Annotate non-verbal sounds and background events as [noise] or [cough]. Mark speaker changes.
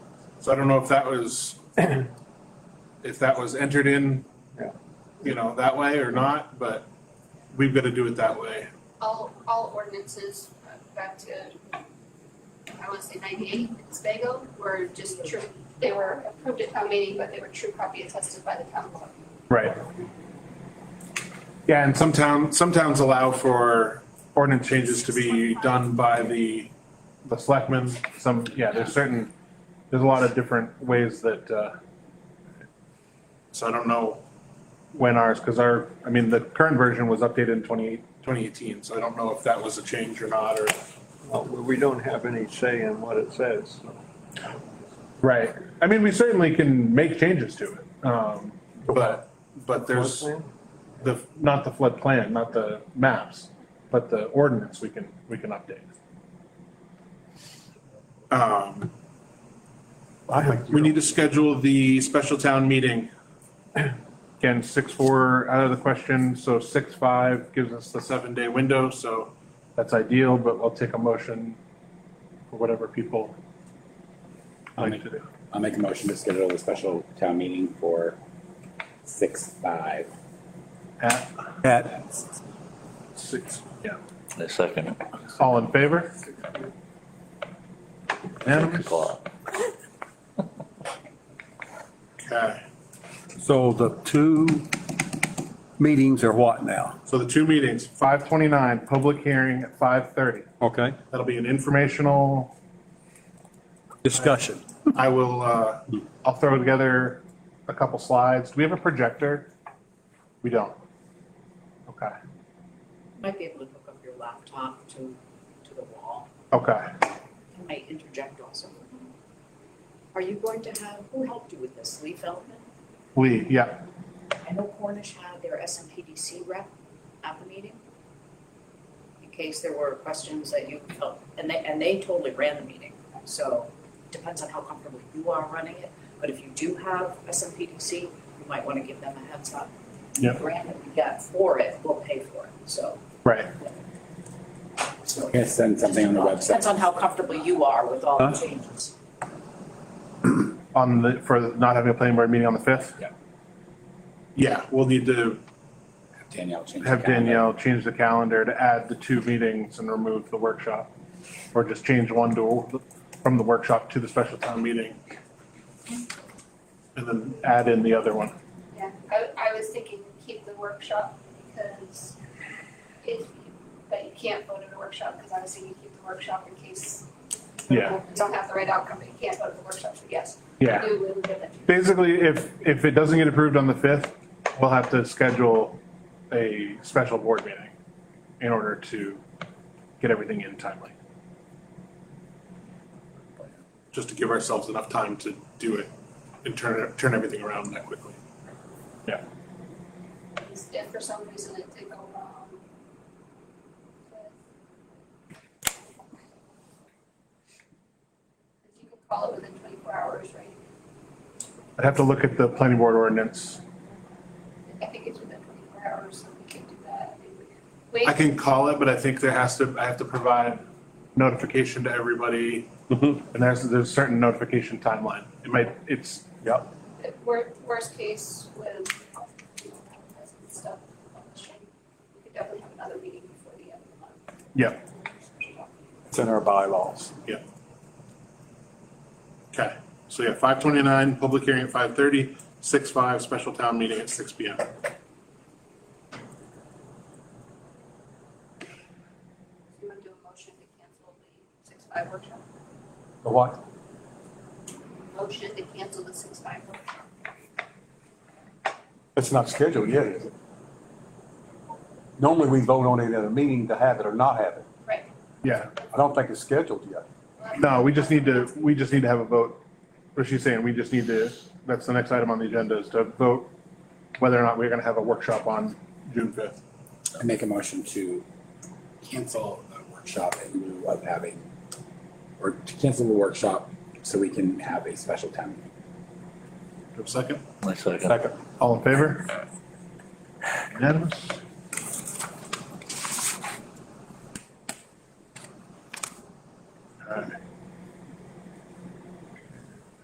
Speaker 1: So I don't know if that was, [clears throat] if that was entered in,
Speaker 2: Yeah.
Speaker 1: you know, that way or not, but we've got to do it that way.
Speaker 3: all, all ordinances uh, back to, I wanna say ninety-eight, in Spago, were just true, they were approved at town meeting, but they were true copy attested by the town clerk.
Speaker 1: Right. Yeah, and some town, some towns allow for ordinance changes to be done by the, the selectmen. Some, yeah, there's certain, there's a lot of different ways that, uh, so I don't know when ours, because our, I mean, the current version was updated in 28 2018. so I don't know if that was a change or not, or.
Speaker 2: Well, we don't have any say in what it says, so.
Speaker 1: Right. I mean, we certainly can make changes to it, um, but, but there's. The, not the flood plan, not the maps, but the ordinance we can, we can update. Um,
Speaker 2: I have
Speaker 1: we need to schedule the special town meeting. Again, six, four out of the question, so six, five gives us the seven day window, so that's ideal, but I'll take a motion for whatever people
Speaker 4: I'll
Speaker 1: like
Speaker 4: make-
Speaker 1: to do.
Speaker 4: I'll make a motion to schedule a special town meeting for six five.
Speaker 1: At
Speaker 5: At,
Speaker 1: six, yeah.
Speaker 6: I second it.
Speaker 1: All in favor?
Speaker 6: Six
Speaker 1: Unanimous?
Speaker 6: o'clock.
Speaker 1: Okay,
Speaker 5: so the two meetings are what now?
Speaker 1: so the two meetings, five twenty-nine, public hearing at five thirty.
Speaker 5: Okay,
Speaker 1: That'll be an informational,
Speaker 5: discussion.
Speaker 1: I will, uh, I'll throw together a couple slides. Do we have a projector? We don't. Okay,
Speaker 7: Might be able to hook up your laptop to, to the wall.
Speaker 1: okay.
Speaker 7: I might interject also. Are you going to have, who helped you with this? Lee Feldman?
Speaker 1: Lee, yeah,
Speaker 7: I know Cornish had their SMPDC rep at the meeting. In case there were questions that you felt, and they, and they totally ran the meeting. So depends on how comfortable you are running it. But if you do have SMPDC, you might want to give them a heads up.
Speaker 1: Yeah.
Speaker 7: The Grant that we get for it, we'll pay for it, so.
Speaker 1: right.
Speaker 7: so-
Speaker 4: I'm gonna send something on the
Speaker 7: Depends
Speaker 4: website.
Speaker 7: on how comfortable you are with all
Speaker 5: Huh?
Speaker 7: the changes.
Speaker 1: On the, for not having a planning board meeting on the fifth?
Speaker 4: Yeah.
Speaker 1: Yeah, we'll need to
Speaker 4: Danielle change. the
Speaker 1: have
Speaker 4: calendar.
Speaker 1: Danielle change the calendar to add the two meetings and remove the workshop. Or just change one to, from the workshop to the special town meeting. And then add in the other one.
Speaker 3: Yeah, I, I was thinking keep the workshop because if, but you can't vote at a workshop, because I was thinking keep the workshop in case
Speaker 1: Yeah,
Speaker 3: you don't have the right outcome, but you can't vote at the workshop, so yes,
Speaker 1: yeah.
Speaker 3: we will give it.
Speaker 1: Basically, if, if it doesn't get approved on the fifth, we'll have to schedule a special board meeting in order to get everything in timely. Just to give ourselves enough time to do it and turn, it- turn everything around that quickly.
Speaker 3: If for some reason it did go wrong. but- You could call it within twenty-four hours, right?
Speaker 1: I'd have to look at the planning board ordinance.
Speaker 3: I think it's within twenty-four hours, so we can do that. I mean, we could Wait,
Speaker 1: I can call it, but I think there has to, I have to provide notification to everybody. And there's, there's a certain notification timeline. It might, it's, yeah,
Speaker 3: the wor- worst case with, you know, advertising stuff, publishing, we could definitely have another meeting before the end of the month.
Speaker 1: yeah,
Speaker 5: It's in our bylaws.
Speaker 1: okay. So yeah, five twenty-nine, public hearing at five thirty, six five, special town meeting at six P M.
Speaker 3: Do you want to do a motion to cancel the six-five workshop?
Speaker 5: The what?
Speaker 3: Motion to cancel the six-five workshop.
Speaker 5: It's not scheduled yet, is it? Normally, we vote on it at a meeting to have it or not have it.
Speaker 3: Right.
Speaker 1: Yeah,
Speaker 5: I don't think it's scheduled yet.
Speaker 1: no, we just need to, we just need to have a vote. What she's saying, we just need to, that's the next item on the agenda is to vote whether or not we're gonna have a workshop on June fifth.
Speaker 4: I make a motion to cancel the workshop in lieu of having, or to cancel the workshop so we can have a special town
Speaker 1: Do
Speaker 4: meeting.
Speaker 1: you have a second?
Speaker 6: I second.
Speaker 5: Second.
Speaker 1: All in favor? Unanimous?